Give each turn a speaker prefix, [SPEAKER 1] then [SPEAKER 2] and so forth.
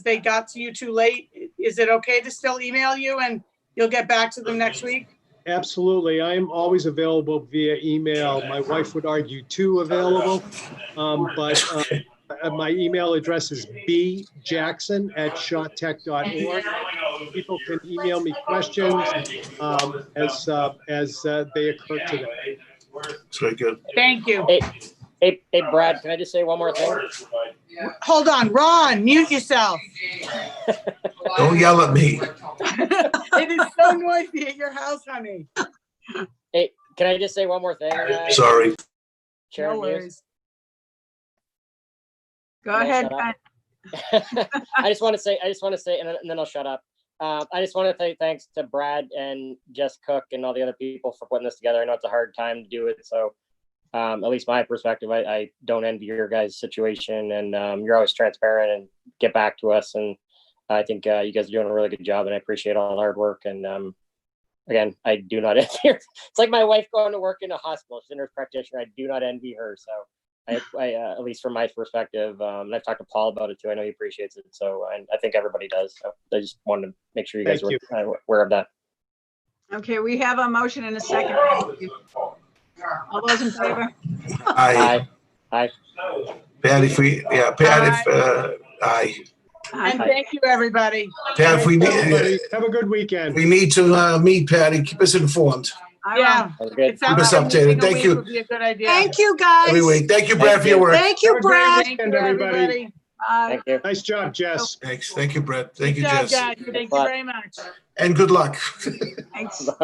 [SPEAKER 1] they got to you too late, is it okay to still email you and you'll get back to them next week?
[SPEAKER 2] Absolutely. I am always available via email. My wife would argue two available. Um, but uh, uh, my email address is bjackson@shawtech.org. People can email me questions um, as, uh, as uh, they occur to them.
[SPEAKER 3] Very good.
[SPEAKER 1] Thank you.
[SPEAKER 4] Hey, hey, Brad, can I just say one more thing?
[SPEAKER 1] Hold on, Ron, mute yourself.
[SPEAKER 3] Don't yell at me.
[SPEAKER 1] It is so noisy at your house, honey.
[SPEAKER 4] Hey, can I just say one more thing? uh,
[SPEAKER 3] Sorry.
[SPEAKER 4] Chair
[SPEAKER 1] No
[SPEAKER 4] Muse?
[SPEAKER 1] worries.
[SPEAKER 5] Go
[SPEAKER 4] Can I
[SPEAKER 5] ahead,
[SPEAKER 1] uh,
[SPEAKER 4] shut up?
[SPEAKER 5] Pat.
[SPEAKER 4] I just want to say, I just want to say, and then and then I'll shut up. Uh, I just want to say thanks to Brad and Jess Cook and all the other people for putting this together. I know it's a hard time to do it, so um, at least my perspective, I, I don't envy your guys' situation, and um, you're always transparent and get back to us. And I think uh, you guys are doing a really good job, and I appreciate all the hard work. And um, again, I do not envy. Her. It's like my wife going to work in a hospital. She's a nurse practitioner. I do not envy her. So I, I uh, at least from my perspective, um, and I've talked to Paul about it too. I know he appreciates it, so and I think everybody does. So I just wanted to make sure you guys
[SPEAKER 2] Thank
[SPEAKER 4] were uh, aware of that.
[SPEAKER 5] Okay, we have a motion and a second. All those in favor?
[SPEAKER 3] Aye.
[SPEAKER 4] Aye.
[SPEAKER 3] Pat, if we, yeah, Pat, if, uh, aye.
[SPEAKER 1] And
[SPEAKER 5] Aye.
[SPEAKER 1] thank you, everybody.
[SPEAKER 3] Pat, if we,
[SPEAKER 2] Everybody,
[SPEAKER 3] need-
[SPEAKER 2] Have a good weekend.
[SPEAKER 3] we need to, uh, meet Patty, keep us informed
[SPEAKER 5] I will.
[SPEAKER 1] Yeah.
[SPEAKER 4] That was good.
[SPEAKER 1] it sounds
[SPEAKER 3] us
[SPEAKER 1] like
[SPEAKER 3] updated.
[SPEAKER 1] meeting a
[SPEAKER 3] Thank
[SPEAKER 1] week
[SPEAKER 3] you.
[SPEAKER 1] Would be a good idea.
[SPEAKER 6] Thank you, guys.
[SPEAKER 3] every week. Thank you, Brad, for your work.
[SPEAKER 6] Thank you,
[SPEAKER 2] Have a great
[SPEAKER 6] Brad.
[SPEAKER 1] Thank
[SPEAKER 2] weekend,
[SPEAKER 1] you, everybody.
[SPEAKER 5] Bye.
[SPEAKER 4] Thank you.
[SPEAKER 2] Nice job, Jess.
[SPEAKER 3] Thanks. Thank you, Brad. Thank you,
[SPEAKER 1] Good job,
[SPEAKER 3] Jess.
[SPEAKER 1] guys. Thank you very much.
[SPEAKER 3] And good luck.
[SPEAKER 5] Thanks.